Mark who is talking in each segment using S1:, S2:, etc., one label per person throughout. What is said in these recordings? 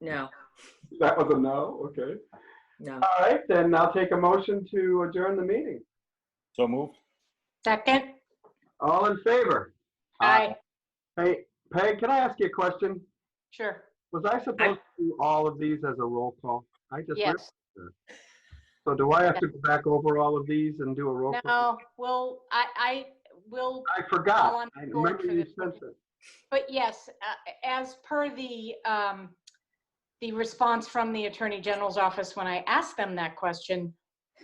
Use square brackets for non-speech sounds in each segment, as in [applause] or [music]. S1: No,
S2: That was a no, okay.
S1: no.
S2: All right, then I'll take a motion to adjourn the meeting.
S3: So moved.
S4: Second?
S2: All in favor?
S4: Aye,
S2: Hey, Peg, can I ask you a question?
S4: sure.
S2: Was I supposed to do all of these as a roll call? I just, realized
S4: Yes.
S2: that. so do I have to go back over all of these and do a roll call?
S4: No, well, I, I will,
S2: I forgot.
S4: on
S2: I
S4: board
S2: remember
S4: for
S2: you
S4: this
S2: said
S4: one.
S2: that.
S4: but yes, uh, as per the, um, the response from the Attorney General's office when I asked them that question,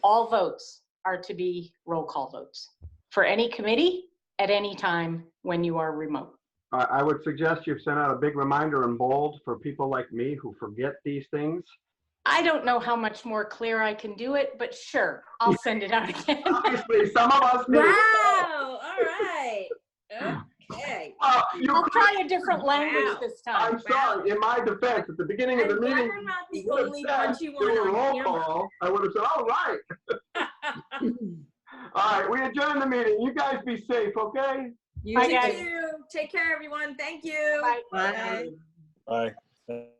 S4: all votes are to be roll call votes for any committee at any time when you are remote.
S2: I, I would suggest you send out a big reminder in bold for people like me who forget these things.
S4: I don't know how much more clear I can do it, but sure, I'll send it out again.
S2: Obviously, some of us do.
S1: Wow, all right.
S2: [laughs]
S1: Okay.
S2: Uh, you
S4: I'll
S2: could-
S4: try a different language
S1: Wow.
S4: this
S2: I'm
S4: time.
S2: sorry, in my defense, at the beginning of
S1: I'm
S2: the
S1: glad
S2: meeting.
S1: I'm not the
S2: you would've
S1: only
S2: said,
S1: punchy
S2: "Do
S1: one
S2: a roll
S1: on camera.
S2: call," I would have said, all right.
S1: [laughs]
S2: [laughs] All right, we adjourn the meeting. You guys be safe, okay?
S1: You
S4: Bye,
S1: too.
S4: guys.
S1: Take care, everyone. Thank you.
S4: Bye.
S1: Bye.
S3: Aye.